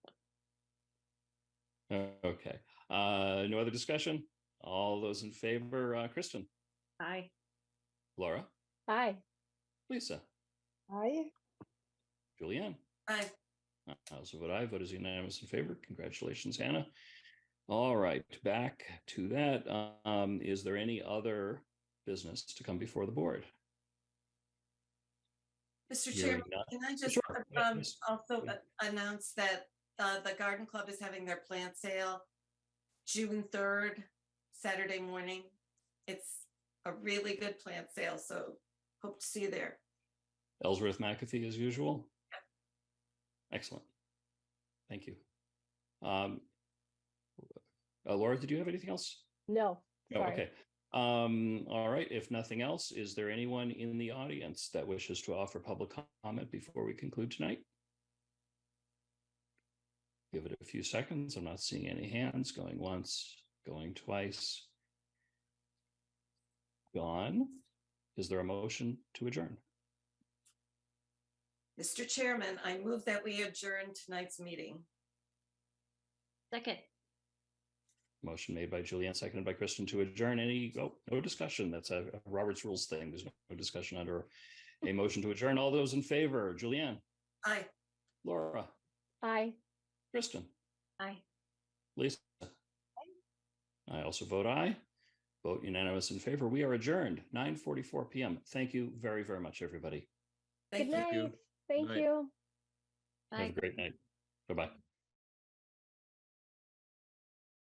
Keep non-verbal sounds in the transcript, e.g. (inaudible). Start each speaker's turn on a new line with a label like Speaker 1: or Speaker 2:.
Speaker 1: (laughs) Okay, uh, no other discussion? All those in favor, uh, Kristen,
Speaker 2: Aye.
Speaker 1: Laura,
Speaker 2: Aye.
Speaker 1: Lisa,
Speaker 3: Aye.
Speaker 1: Julianne? Uh,
Speaker 4: Aye.
Speaker 1: I also vote aye. Vote is unanimous in favor. Congratulations, Hannah. All right, back to that. Um, is there any other business to come before the board?
Speaker 4: Mr.
Speaker 1: Hearing
Speaker 4: Chairman,
Speaker 1: none.
Speaker 4: can I just
Speaker 1: Sure. Yeah,
Speaker 4: um,
Speaker 1: please.
Speaker 4: also
Speaker 1: Yeah.
Speaker 4: announce that uh, the Garden Club is having their plant sale June 3rd, Saturday morning. It's a really good plant sale, so hope to see you there.
Speaker 1: Ellsworth McAfee as usual? Excellent. Thank you. Um, uh, Laura, did you have anything else?
Speaker 2: No.
Speaker 1: No,
Speaker 2: sorry.
Speaker 1: Oh, okay. Um, all right, if nothing else, is there anyone in the audience that wishes to offer public comment before we conclude tonight? Give it a few seconds. I'm not seeing any hands going once, going twice. Gone. Is there a motion to adjourn?
Speaker 4: Mr. Chairman, I move that we adjourn tonight's meeting.
Speaker 2: Second.
Speaker 1: Motion made by Julianne, seconded by Kristen to adjourn. Any, oh, no discussion. That's a a Robert's Rules thing. There's no discussion under a motion to adjourn. All those in favor, Julianne,
Speaker 4: Aye.
Speaker 1: Laura,
Speaker 2: Aye.
Speaker 1: Kristen,
Speaker 2: Aye.
Speaker 1: Lisa. I also vote aye. Vote unanimous in favor. We are adjourned, 9:44 PM. Thank you very, very much, everybody.
Speaker 4: Thank
Speaker 2: Good
Speaker 4: you.
Speaker 2: night. Thank
Speaker 5: Night.
Speaker 2: you.
Speaker 1: Have a great night. Bye-bye.